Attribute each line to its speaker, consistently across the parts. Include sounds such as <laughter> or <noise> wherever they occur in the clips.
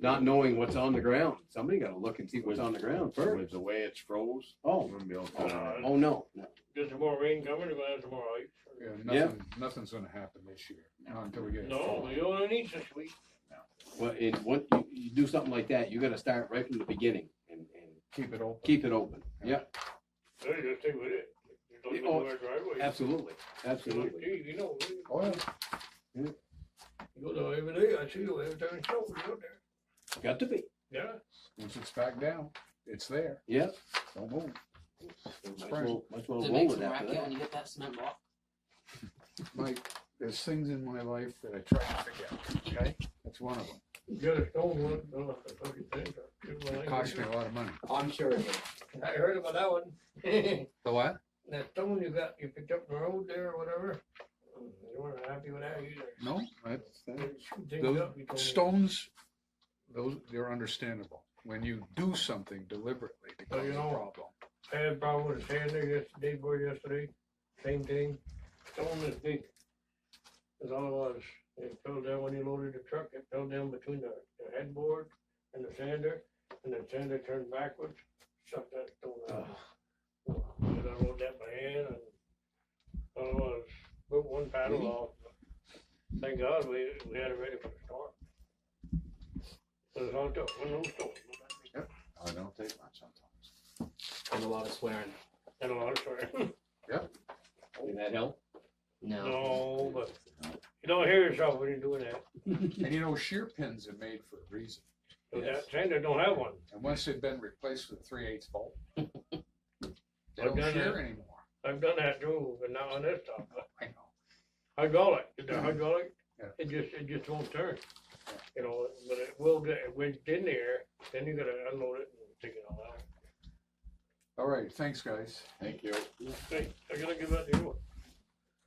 Speaker 1: not knowing what's on the ground. Somebody gotta look and see what's on the ground first.
Speaker 2: With the Uh, way it's froze.
Speaker 1: Oh,
Speaker 2: wouldn't be able to-
Speaker 1: oh, oh, no, no.
Speaker 3: Does there more rain coming or is there more ice?
Speaker 4: Yeah,
Speaker 1: Yeah.
Speaker 4: nothing, nothing's gonna happen this year, not until we get. it
Speaker 3: No,
Speaker 4: full.
Speaker 3: we only need this week.
Speaker 1: Well, and what, you, you do something like that, you gotta start right from the beginning and, and
Speaker 4: Keep it open.
Speaker 1: keep it open. Yeah,
Speaker 3: There you go, stay with it. Just don't
Speaker 1: Yeah,
Speaker 3: go
Speaker 1: oh,
Speaker 3: to our driveway.
Speaker 1: absolutely, absolutely.
Speaker 3: Gee, You know, we-
Speaker 4: Oh, yeah.
Speaker 3: you go there every day, I see you every time it snows out there.
Speaker 1: Got to be,
Speaker 3: Yeah,
Speaker 4: Once it's back down, it's there,
Speaker 1: yeah.
Speaker 4: don't move.
Speaker 1: Might as
Speaker 4: Surprise.
Speaker 1: well, might as well
Speaker 5: Did it
Speaker 1: roll
Speaker 5: make
Speaker 1: with
Speaker 5: some
Speaker 1: that for
Speaker 5: racket
Speaker 1: that.
Speaker 5: when you hit that cement block?
Speaker 4: Mike, there's things in my life that I try to figure out, okay? That's one of them.
Speaker 3: you got a stone one, I don't know if I told you that, but it was
Speaker 4: It
Speaker 3: like-
Speaker 4: cost me a lot of money.
Speaker 5: I'm sure it did.
Speaker 3: I heard about that one. <laughs>
Speaker 4: The what?
Speaker 3: That stone you got, you picked up in the road there or whatever. Mm, You weren't happy with that either.
Speaker 4: No, that's,
Speaker 3: You
Speaker 4: that-
Speaker 3: shoot things
Speaker 4: Those
Speaker 3: up, you told me.
Speaker 4: stones, those, they're understandable. When you do something deliberately to
Speaker 3: Well,
Speaker 4: cause
Speaker 3: you
Speaker 4: a
Speaker 3: know-
Speaker 4: problem.
Speaker 3: I had a problem with a sander yesterday, boy, yesterday, same thing, stone is big. That's all it was, it fell down when you loaded the truck, it fell down between the, the headboard and the sander, and the sander turned backwards, shut that stone out. And I loaded that by hand, and all it was, put one paddle off. Thank God we, we had it ready for the storm. It was all it took, one little stone,
Speaker 2: I don't take much sometimes.
Speaker 5: There's a lot of swearing.
Speaker 3: and a lot of swearing.
Speaker 1: Did that help?
Speaker 5: No.
Speaker 3: No, but you don't hear yourself when you're doing that.
Speaker 4: And you know, shear pins are made for a reason.
Speaker 3: So
Speaker 4: Yes.
Speaker 3: That sander don't have one.
Speaker 4: And once they've been replaced with three eighths bolt, they
Speaker 3: I've
Speaker 4: don't
Speaker 3: done
Speaker 4: shear
Speaker 3: that.
Speaker 4: anymore.
Speaker 3: I've done that too, but not on this stuff.
Speaker 4: I know.
Speaker 3: Hydraulic, the hydraulic,
Speaker 4: Yeah.
Speaker 3: it just, it just won't turn. You know, but it will get, when it's in there, then you gotta unload it and take it all out.
Speaker 4: All right, thanks, guys.
Speaker 2: Thank you.
Speaker 3: Hey, I gotta give that to you.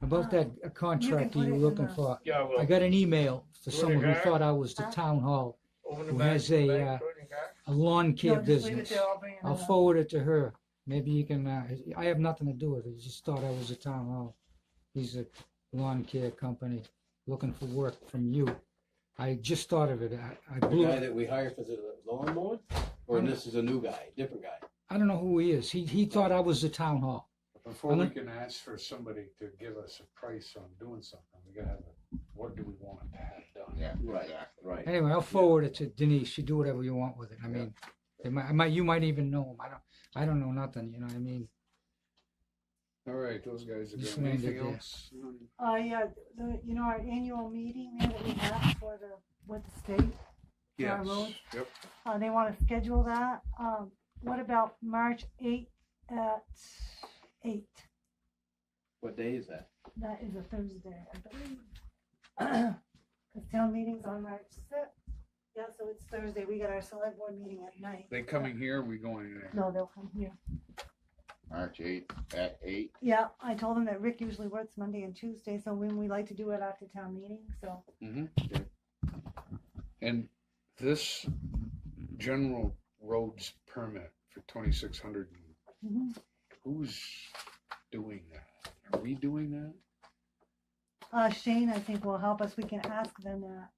Speaker 6: About that
Speaker 7: Oh.
Speaker 6: uh, contract
Speaker 7: put
Speaker 6: you
Speaker 7: it
Speaker 6: were
Speaker 7: in
Speaker 6: looking
Speaker 7: the-
Speaker 6: for,
Speaker 3: Yeah, well,
Speaker 6: I got an email for
Speaker 3: Where
Speaker 6: someone
Speaker 3: they
Speaker 6: who
Speaker 3: got it?
Speaker 6: thought I was the town hall,
Speaker 3: open the
Speaker 6: who
Speaker 3: back.
Speaker 6: has a,
Speaker 3: back,
Speaker 6: uh,
Speaker 3: put it in the car.
Speaker 6: a lawn care
Speaker 7: No, just leave it
Speaker 6: business.
Speaker 7: there, I'll bring it
Speaker 6: I'll
Speaker 7: up.
Speaker 6: forward it to her. Maybe you can, uh, I have nothing to do with it. He just thought I was the town hall. He's a lawn care company looking for work from you. I just thought of it. I, I
Speaker 1: The
Speaker 6: blew
Speaker 1: guy
Speaker 6: it.
Speaker 1: that we hired for the lawnmower, or this is a new guy, different guy?
Speaker 6: I don't know who he is. He, he thought I was the town hall.
Speaker 4: Before
Speaker 6: I'm
Speaker 4: we
Speaker 6: not-
Speaker 4: can ask for somebody to give us a price on doing something, we gotta have, a what do we want to have done?
Speaker 2: Yeah,
Speaker 1: Right.
Speaker 2: exactly.
Speaker 1: Right.
Speaker 6: Anyway, I'll forward it to Denise. You do whatever you want with it. I mean, they might, I might, you might even know him. I don't, I don't know nothing. You know what I mean?
Speaker 4: All right, those guys are
Speaker 6: Just
Speaker 4: doing anything
Speaker 6: landed there.
Speaker 4: else?
Speaker 7: Uh, yeah, the, you know, our annual meeting there that we have for the, with the state, For our
Speaker 4: Yes,
Speaker 7: roads?
Speaker 4: yep,
Speaker 7: uh, they wanna schedule that, um, what about March eighth at eight?
Speaker 1: What day is that?
Speaker 7: That is a Thursday, I believe. <clears throat> Cause town meeting's on March sixth, yeah, so it's Thursday, we got our select board meeting at night.
Speaker 4: they coming here, we going in there?
Speaker 7: No, they'll come here,
Speaker 2: March eighth at eight.
Speaker 7: yeah, I told them that Rick usually works Monday and Tuesday, so when we like to do it after town meeting, so.
Speaker 4: Mm-hmm. And this general roads permit for twenty-six hundred,
Speaker 7: Mhm.
Speaker 4: who's doing that? Are we doing that?
Speaker 7: Uh, Shane, I think will help us, we can ask them that,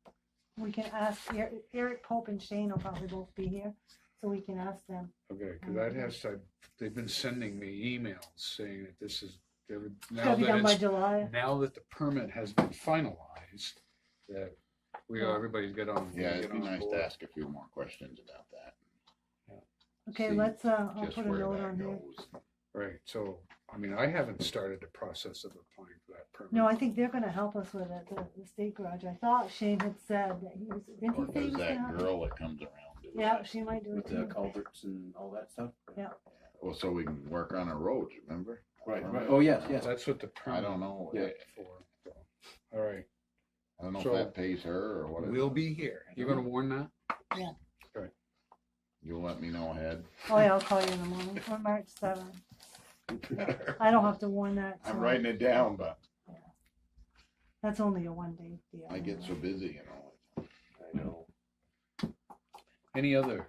Speaker 7: we can ask, Eric- Eric Pope and Shane will probably both be here, so we can ask them.
Speaker 4: Okay,
Speaker 7: Oh
Speaker 4: cause I'd have, to- they've been sending me emails saying that this is, now
Speaker 7: Gotta be
Speaker 4: that
Speaker 7: done by
Speaker 4: it's
Speaker 7: July,
Speaker 4: now that the permit has been finalized, that we,
Speaker 7: Yeah.
Speaker 4: everybody's got on.
Speaker 2: Yeah, it'd be
Speaker 4: get on
Speaker 2: nice to
Speaker 4: board.
Speaker 2: ask a few more questions about that.
Speaker 7: okay,
Speaker 2: See
Speaker 7: let's, uh, I'll
Speaker 2: Just
Speaker 7: put a
Speaker 2: where
Speaker 7: note
Speaker 2: that
Speaker 7: on here.
Speaker 2: goes.
Speaker 4: Right, so, I mean, I haven't started the process of applying for that permit.
Speaker 7: No, I think they're gonna help us with it, the, the state garage, I thought Shane had said that he was, didn't
Speaker 2: Or
Speaker 7: he say he
Speaker 2: does Oh,
Speaker 7: was gonna?
Speaker 2: that
Speaker 7: help us?
Speaker 2: girl that comes around do
Speaker 7: Yeah,
Speaker 2: that?
Speaker 7: she might do
Speaker 1: With
Speaker 7: it
Speaker 1: the
Speaker 7: too.
Speaker 1: culverts and all that stuff?
Speaker 7: Yeah.
Speaker 2: Well, so we can work on our roads, remember?
Speaker 1: Right, right. Oh, yes, yes.
Speaker 4: That's what the
Speaker 2: I
Speaker 4: permit.
Speaker 2: don't know,
Speaker 1: Yeah.
Speaker 2: I
Speaker 4: for, so. All right,
Speaker 2: don't know if
Speaker 4: So-
Speaker 2: that pays her or what. it-
Speaker 4: we'll be here. You're gonna warn that?
Speaker 2: You'll let me know ahead.
Speaker 7: Oh yeah, I'll call you in the morning, or March seventh, I don't have to warn that.
Speaker 2: I'm
Speaker 7: so
Speaker 2: writing it down, but
Speaker 7: That's only a one day deal.
Speaker 2: I get so busy, you know.
Speaker 1: I know.
Speaker 4: Any other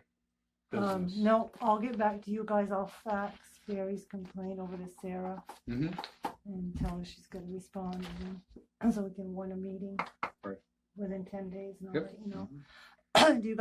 Speaker 7: Um,
Speaker 4: business?
Speaker 7: no, I'll get back to you guys. I'll fax Barry's complaint over to Sarah
Speaker 4: Mhm.
Speaker 7: and tell her she's gonna respond and then- so we can warn a meeting
Speaker 4: Right.
Speaker 7: within ten days and I'll
Speaker 4: Yep. Mm-hmm.
Speaker 7: let you know. <clears throat> Do you